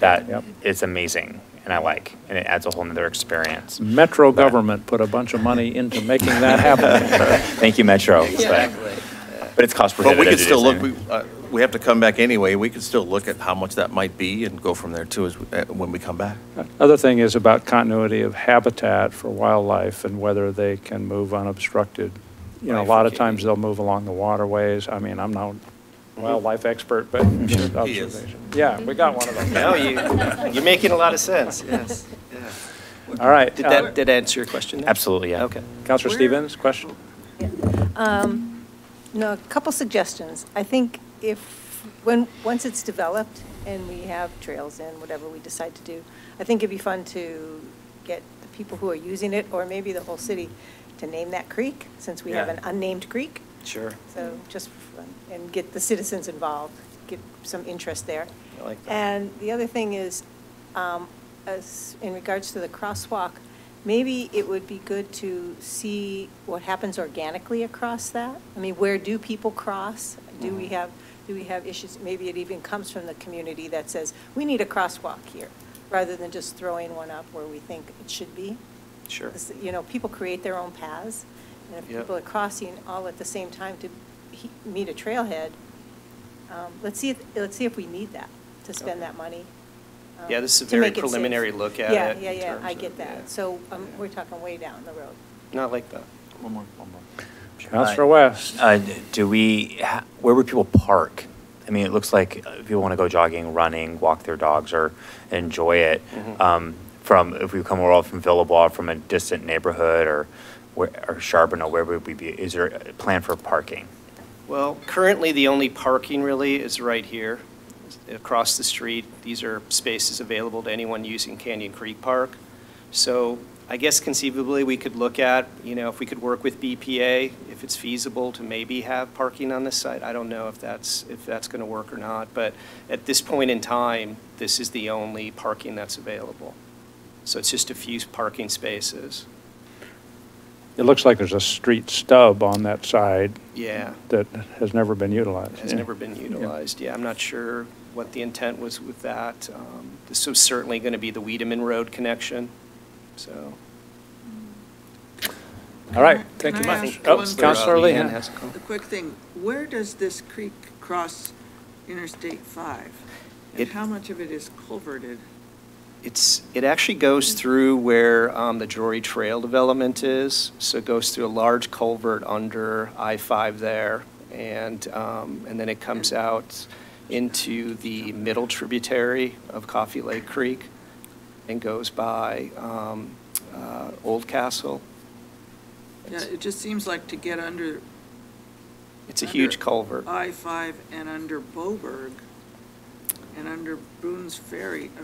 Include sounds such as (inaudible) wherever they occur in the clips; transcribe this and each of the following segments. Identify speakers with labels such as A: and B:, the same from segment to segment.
A: that
B: Yep.
A: is amazing and I like, and it adds a whole nother experience.
B: Metro government put a bunch of money into making that happen.
A: (laughs) Thank you, Metro. Exactly. But it's cost
C: But
A: prohibitive.
C: we
A: to
C: could
A: do
C: still look,
A: something.
C: we, uh, we have to come back anyway, we could still look at how much that might be and go from there too, as, uh, when we come back.
B: Other thing is about continuity of habitat for wildlife and whether they can move unobstructed. You know, a lot of times they'll move along the waterways. I mean, I'm not a wildlife expert, but observation. Yeah, we got one of them.
D: No, you, you're making a lot of sense, Um, yes.
B: All right.
D: Did
B: uh,
D: that, did that answer your question? there?
A: Absolutely, yeah.
D: Okay.
B: Counselor Stevens, question?
E: Um, No, a couple suggestions. I think if, when, once it's developed and we have trails in, whatever we decide to do, I think it'd be fun to get the people who are using it, or maybe the whole city, to name that creek, since we have
D: Yeah.
E: an unnamed creek.
D: Sure.
E: So just, for fun, and get the citizens involved, get some interest there.
D: I like that.
E: And the other thing is, um, as, in regards to the crosswalk, maybe it would be good to see what happens organically across that. I mean, where do people cross? Do we have, do we have issues? Maybe it even comes from the community that says, we need a crosswalk here, rather than just throwing one up where we think it should be.
D: Sure.
E: This- You know, people create their own paths, and if
D: Yep.
E: people are crossing all at the same time to he- meet a trailhead, um, let's see, if let's see if we need that, to
D: Okay.
E: spend that money. um,
D: Yeah, this is a
E: to
D: very
E: make it safe.
D: preliminary look at it
E: Yeah,
D: in
E: yeah, yeah,
D: terms
E: I
D: of-
E: get
D: yeah.
E: that. So um,
D: Yeah.
E: we're talking way down the road.
D: No, I like that.
C: One more, one more.
B: Counselor West?
A: Uh, do we, ha- where would people park? I mean, it looks like uh, people want to go jogging, running, walk their dogs, or enjoy it.
D: Mhm.
A: Um, from if we come all from Villebois, from a distant neighborhood, or where, or Charbonneau, where would we be? Is there a plan for parking?
D: Well, currently, the only parking really is right here, across the street. These are spaces available to anyone using Canyon Creek Park. So I guess conceivably, we could look at, you know, if we could work with BPA, if it's feasible to maybe have parking on this site. I don't know if that's, if that's going to work or not, but at this point in time, this is the only parking that's available. So it's just a few parking spaces.
B: It looks like there's a street stub on that side
D: Yeah.
B: that has never been utilized.
D: has
B: Yeah.
D: never been utilized. Yeah, I'm not sure what the intent was with that. Um, This was certainly going to be the Wiedemann Road connection, so.
B: All right, thank you
F: Can I
B: much.
F: ask
B: Oh,
F: one-
B: Counselor
D: Leanne
B: Leahan.
D: has a comment.
F: A quick thing, where does this creek cross Interstate 5?
D: It-
F: And how much of it is culverted?
D: It's, it actually
F: Mm.
D: goes through where um, the Drury Trail development is, so it goes through a large culvert under I-5 there, and, um, and then it
F: Mm.
D: comes out into the middle tributary of Coffee Lake Creek and goes by um, uh, Old Castle.
F: Yeah, It just seems like to get under.
D: It's a
F: under
D: huge culvert.
F: I-5 and under Boberg and under Boone's Ferry. uh,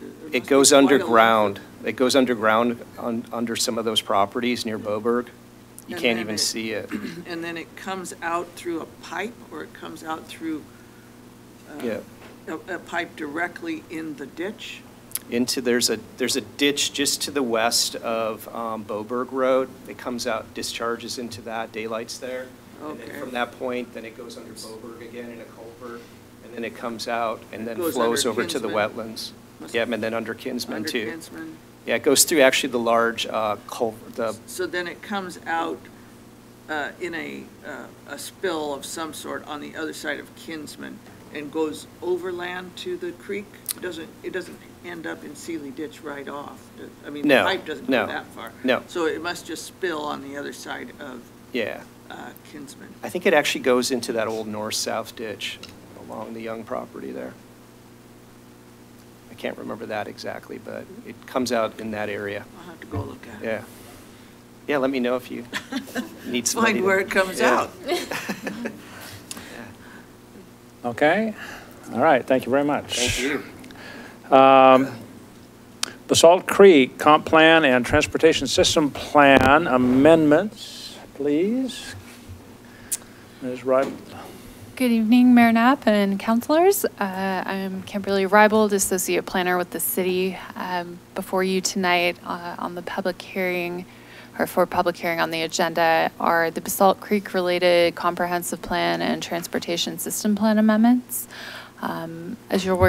F: there must be
D: It goes
F: quite a lot of-
D: underground. It goes underground on, under some of those properties near Boberg. You can't
F: And then
D: even
F: it-
D: see it.
F: (clears throat) And then it comes out through a pipe or it comes out through. uh,
D: Yeah.
F: A, a pipe directly in the ditch?
D: Into, there's a, there's a ditch just to the west of um, Boberg Road. It comes out, discharges into that, daylight's there. And then
F: Okay.
D: from that point, then it goes under Boberg again in a culvert, and then it comes out and then
F: Goes
D: flows
F: under
D: over to the
F: Kinsman.
D: wetlands. Yeah, and then under Kinsman
F: Under
D: too.
F: Kinsman.
D: Yeah, it goes through actually the large uh, culvert, the
F: So then it comes out uh, in a, uh, a spill of some sort on the other side of Kinsman and goes overland to the creek? It doesn't, it doesn't end up in Sealy Ditch right off? I mean, the
D: No,
F: pipe doesn't
D: no,
F: go that far?
D: no.
F: So it must just spill on the other side of
D: yeah.
F: uh, Kinsman?
D: I think it actually goes into that old north-south ditch along the Young property there. I can't remember that exactly, but it comes out in that area,
F: I'll have to go look at it.
D: yeah. Yeah, let me know if you need
F: (laughs)
D: somebody.
F: Find
D: to-
F: where it comes
D: Yeah.
F: out.
B: Okay, all right, thank you very much.
D: Thank you.
B: Basalt Creek Comp Plan and Transportation System Plan amendments, please. Ms. Wright,
G: Good evening, Mayor Knapp and councilors. Uh, I'm Kimberly Rybold, Associate Planner with the city. Um, Before you tonight uh, on the public hearing, or for public hearing on the agenda, are the Basalt Creek-related Comprehensive Plan and Transportation System Plan amendments. Um, As you're working